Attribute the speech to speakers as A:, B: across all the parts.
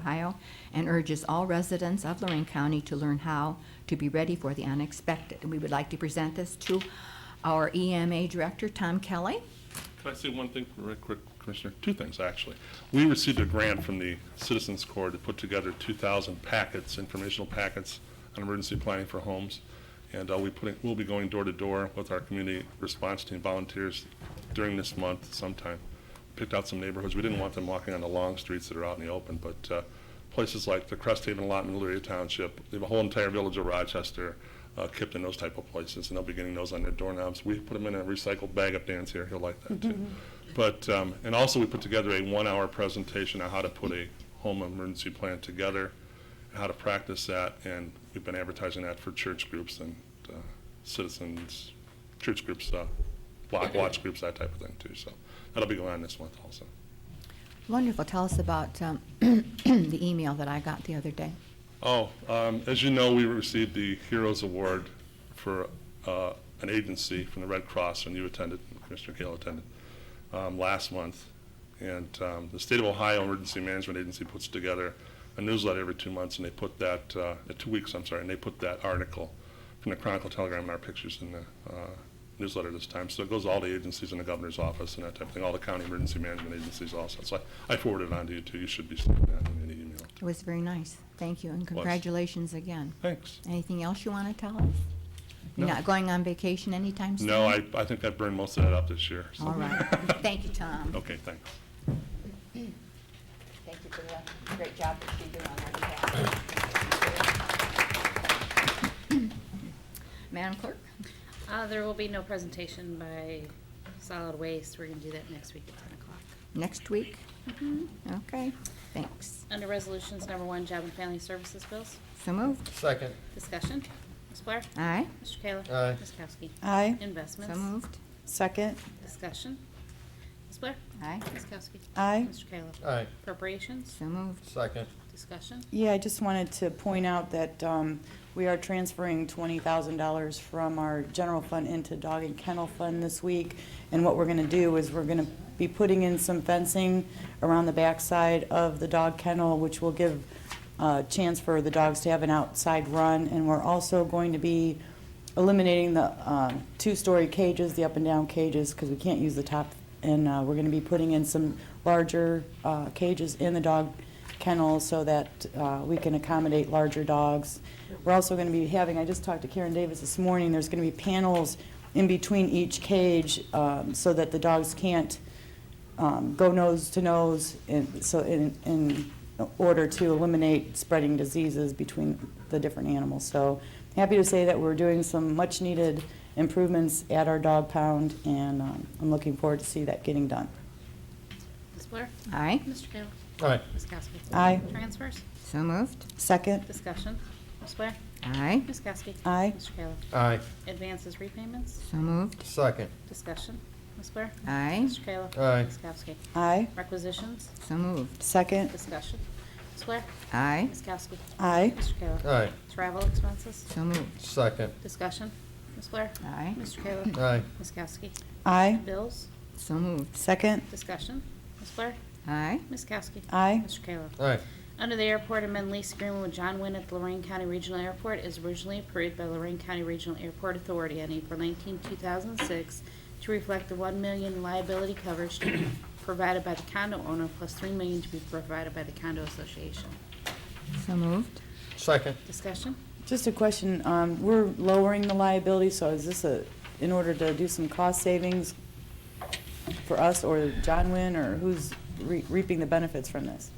A: tomorrow and urges all residents of Lorraine County to learn how to be ready for the unexpected. And we would like to present this to our EMA Director, Tom Kelly.
B: Can I say one thing real quick, Commissioner? Two things, actually. We received a grant from the Citizens Corps to put together 2,000 packets, informational packets on emergency planning for homes. And uh, we put, it- we'll be going door to door with our community response team volunteers during this month sometime. Picked out some neighborhoods. We didn't want them walking on the long streets that are out in the open, but uh, places like the Crest Haven lot in Elyria Township, they have a whole entire village of Rochester, uh, Kipton, those type of places, and they'll be getting those on their doorknobs. We put them in a recycled bag up Dan's here, he'll like that too. But, um, and also we put together a one-hour presentation on how to put a home emergency plan together, how to practice that, and we've been advertising that for church groups and uh, citizens, church groups, uh, block watch groups, that type of thing too, so that'll be going on this month also.
A: Wonderful. Tell us about um, the email that I got the other day.
B: Oh, um, as you know, we received the Heroes Award for, uh, an agency from the Red Cross, and you attended, Commissioner Kale attended, um, last month. And, um, the State of Ohio Emergency Management Agency puts together a newsletter every two months, and they put that, uh, uh, two weeks, I'm sorry, and they put that article from the Chronicle Telegram and our pictures in the, uh, newsletter this time. So it goes to all the agencies in the governor's office and that type of thing, all the county emergency management agencies also. So I I forwarded it on to you too. You should be seeing that in the email.
A: It was very nice. Thank you, and congratulations again.
B: Thanks.
A: Anything else you want to tell us? You're
B: No.
A: not going on vacation anytime soon?
B: No, I, I think I burned most of that up this year. so.
A: All right. Thank you, Tom.
B: Okay, thanks.
A: Thank you for the great job that you do on our behalf. Madam Clerk?
C: Uh, there will be no presentation by solid waste. We're gonna do that next week at ten o'clock.
A: Next week? Okay, thanks.
C: Under resolutions, number one, job and family services bills.
A: So moved.
D: Second,
C: Discussion. Ms. Blair?
A: Aye,
C: Mr. Kayla?
D: Aye.
C: Ms. Kowski?
E: Aye.
A: so
C: Investments?
A: moved.
E: Second.
C: Discussion. Ms. Blair?
A: Aye,
C: Ms. Kowski?
E: Aye.
C: Mr. Kayla?
D: aye,
C: Appropriations?
A: so moved.
D: second,
C: Discussion.
E: Yeah, I just wanted to point out that um, we are transferring $20,000 from our general fund into dog and kennel fund this week. And what we're going to do is we're going to be putting in some fencing around the backside of the dog kennel, which will give a chance for the dogs to have an outside run. And we're also going to be eliminating the um, two-story cages, the up-and-down cages, because we can't use the top. And uh, we're going to be putting in some larger uh, cages in the dog kennels so that uh, we can accommodate larger dogs. We're also going to be having, I just talked to Karen Davis this morning, there's going to be panels in between each cage um, so that the dogs can't um, go nose to nose in, so in, in order to eliminate spreading diseases between the different animals. So happy to say that we're doing some much needed improvements at our dog pound and um, I'm looking forward to see that getting done.
C: Ms. Blair?
A: Aye,
C: Mr. Kayla?
D: aye,
C: Ms. Kowski?
E: Aye.
C: Transfers?
A: so moved.
E: Second,
C: Discussion. Ms. Blair?
A: Aye,
C: Ms. Kowski?
E: Aye.
C: Mr. Kayla?
D: aye,
C: Advances repayments?
A: so moved.
D: second,
C: Discussion. Ms. Blair?
A: Aye,
C: Mr. Kayla?
D: Aye.
C: Ms. Kowski?
E: aye.
C: Requisitions?
A: so moved.
E: Second,
C: Discussion. Ms. Blair?
A: Aye,
C: Ms. Kowski?
E: aye.
C: Mr. Kayla?
D: aye,
C: Travel expenses?
A: so moved.
D: second,
C: Discussion. Ms. Blair?
A: Aye,
C: Mr. Kayla?
D: aye,
C: Ms. Kowski?
E: Aye.
C: Bills?
A: so moved.
E: Second,
C: Discussion. Ms. Blair?
A: Aye,
C: Ms. Kowski?
E: Aye.
C: Mr. Kayla?
D: aye,
C: Under the airport amend lease agreement with John Wynn at the Lorraine County Regional Airport is originally approved by Lorraine County Regional Airport Authority on April 19, 2006, to reflect the 1 million liability coverage to be provided by the condo owner plus 3 million to be provided by the condo association.
A: so moved.
D: second,
C: Discussion?
E: just a question, um, we're lowering the liability, so is this a, in order to do some cost savings for us or John Wynn, or who's re- reaping the benefits from this?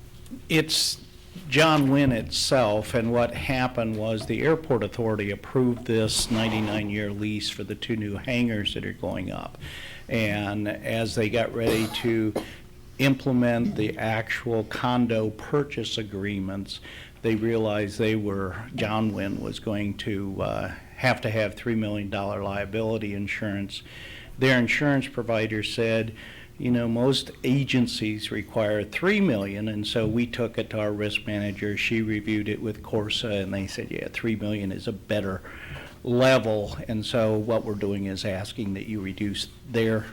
F: It's John Wynn itself, and what happened was the airport authority approved this 99-year lease for the two new hangars that are going up. And as they got ready to implement the actual condo purchase agreements, they realized they were, John Wynn was going to uh, have to have $3 million liability insurance. Their insurance provider said, you know, most agencies require three million, and so we took it to our risk manager. She reviewed it with Corsa, and they said, yeah, three million is a better level. And so what we're doing is asking that you reduce their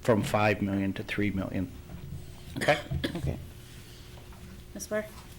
F: from five million to three million. Okay?
E: Okay.
C: Ms. Blair?